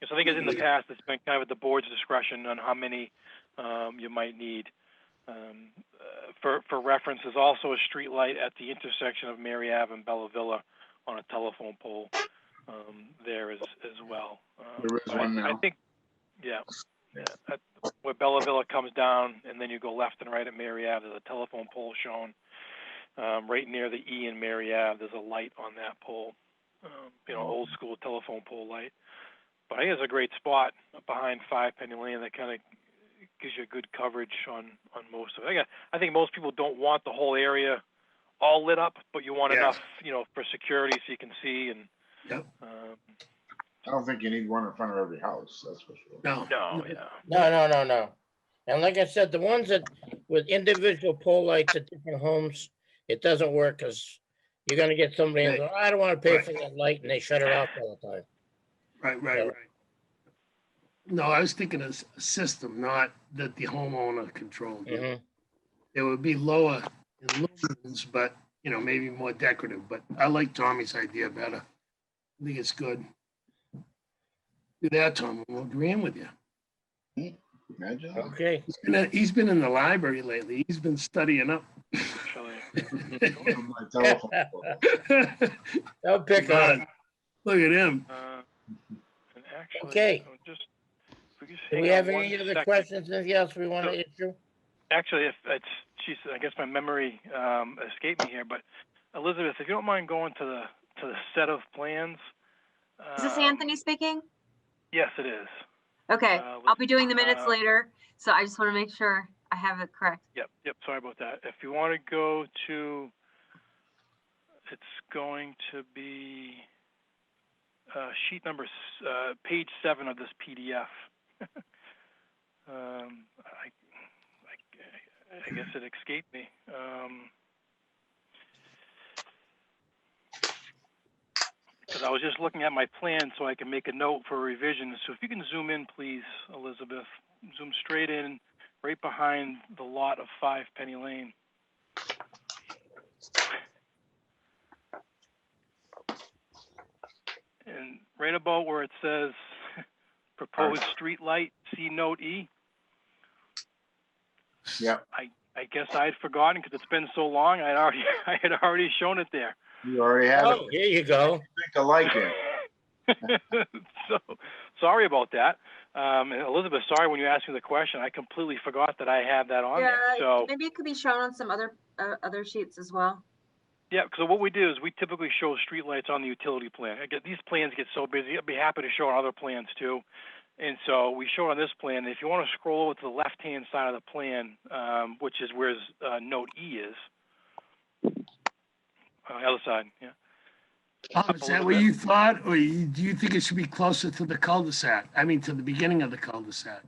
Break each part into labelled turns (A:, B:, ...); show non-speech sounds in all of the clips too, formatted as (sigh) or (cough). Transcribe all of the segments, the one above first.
A: Because I think as in the past, it's been kind of at the board's discretion on how many um, you might need. Um, uh, For, for reference, there's also a street light at the intersection of Mary Ave and Bella Villa on a telephone pole um, there as, as well. Um,
B: There is
A: but I-
B: one now.
A: I think, yeah, yeah, at- where Bella Villa comes down and then you go left and right at Mary Ave, there's a telephone pole shown. Um, Right near the E in Mary Ave, there's a light on that pole, um, you know, old school telephone pole light. But I think it's a great spot behind Five Penny Lane that kind of gives you good coverage on on most of it. I, got, I think most people don't want the whole area all lit up, but you want
B: Yeah.
A: enough, you know, for security so you can see and.
C: Yep.
A: Um,
B: I don't think you need one in front of every house, that's for sure.
C: No.
A: no, yeah,
D: No, no, no, no. And like I said, the ones that with individual pole lights at different homes, it doesn't work because you're gonna get somebody, and go, I don't wanna pay for that light, and they shut it off all the time.
C: Right, right, right. No, I was thinking of s- a system, not that the homeowner controlled. it.
D: Mhm.
C: It would be lower in lumens, but, you know, maybe more decorative, but I like Tommy's idea better. I think it's good. Do that, Tom, and we'll agree with you.
B: Imagine, that.
D: Okay,
C: He's been, at- he's been in the library lately. He's been studying up.
A: actually,
C: (laughs)
B: From my telephone pole.
D: I'll pick on it.
C: God, Look at him.
A: uh, and actually,
D: Okay.
A: I'm just. if we could just
D: Do
A: hang
D: we
A: on
D: have
A: one
D: any other
A: second.
D: questions, anything else we wanna issue?
A: Actually, if it's, geez, I guess my memory um, escaped me here, but Elizabeth, if you don't mind going to the to the set of plans.
E: Is this
A: um,
E: Anthony speaking?
A: Yes, it is.
E: Okay,
A: uh,
E: I'll
A: let's-
E: be doing the minutes
A: uh,
E: later, so I just want to make sure I have it correct.
A: Yep, yep. Sorry about that. If you want to go to, it's going to be uh, sheet number, s- uh, page seven of this PDF. (laughs) um, I, I, I guess it escaped me. Um, because I was just looking at my plan so I can make a note for revision. So if you can zoom in, please, Elizabeth, zoom straight in right behind the lot of five Penny Lane. And right about where it says (laughs) proposed street light, C note E,
B: Yeah,
A: I guess I had forgotten because it's been so long, I already, (laughs) I had already shown it there. (laughs)
B: you already have it,
D: Oh, here you go.
B: think I like it.
A: so sorry about that. Um, and Elizabeth, sorry when you asked me the question, I completely forgot that I had that on there.
E: Yeah,
A: So
E: Maybe it could be shown on some other, uh, other sheets as well.
A: Yeah, so what we do is we typically show streetlights on the utility plan. I get, these plans get so busy, I'd be happy to show on other plans too. And so we show on this plan, if you want to scroll over to the left-hand side of the plan, um, which is where uh, note E is. On the other side, yeah.
C: Bob, is that what you thought, or you- do you think it should be closer to the cul-de-sac? I mean, to the beginning of the cul-de-sac?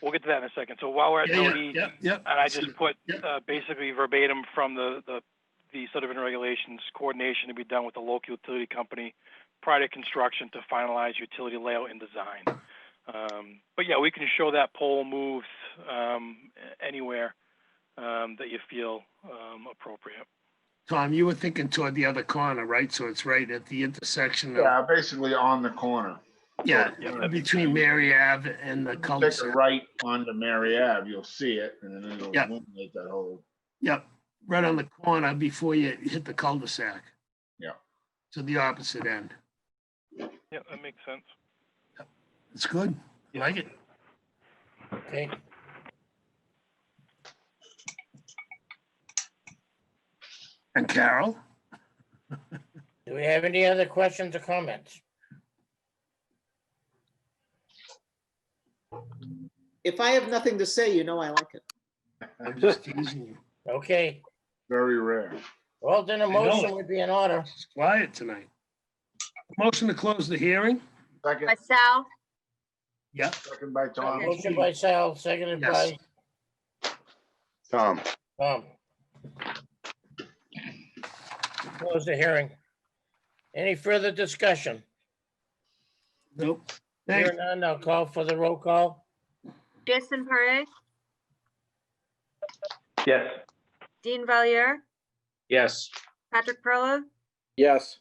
A: We'll get to that in a second. So while we're at
C: Yeah,
A: note
C: yeah,
A: E,
C: yeah, yeah.
A: And I just put
C: Yep.
A: uh, basically verbatim from the, the, the subdivision regulations, coordination to be done with the local utility company prior to construction to finalize utility layout and design. Um, But yeah, we can show that pole moved um, a- anywhere um, that you feel um, appropriate.
C: Tom, you were thinking toward the other corner, right? So it's right at the intersection of,
B: Yeah, basically on the corner.
C: yeah,
A: Yeah.
C: between Mary Ave and the
B: Take a
C: cul-de-sac.
B: right onto Mary Ave, you'll see it, and then it'll
C: Yeah.
B: illuminate that whole,
C: Yep, right on the corner before you hit the cul-de-sac.
B: Yeah.
C: To the opposite end.
A: Yeah, that makes sense.
C: It's good. I Like it.
D: Okay,
C: And Carol?
D: do we have any other questions or comments?
F: If I have nothing to say, you know I like it.
C: I'm just teasing you.
D: Okay,
B: very rare.
D: well, then a
C: know
D: motion
C: it.
D: would be in order.
C: It's Quiet tonight. Motion to close the hearing?
B: Second,
E: By Sal,
C: Yep.
B: second by Tom.
D: Motion by Sal, seconded
C: Yes.
D: by
B: Tom.
D: Tom. Close the hearing. Any further discussion?
C: Nope. Thanks.
D: Here none, I'll call for the roll call.
E: Jason Perez,
G: Yes.
E: Dean Valier,
G: Yes.
E: Patrick Perla,
G: Yes.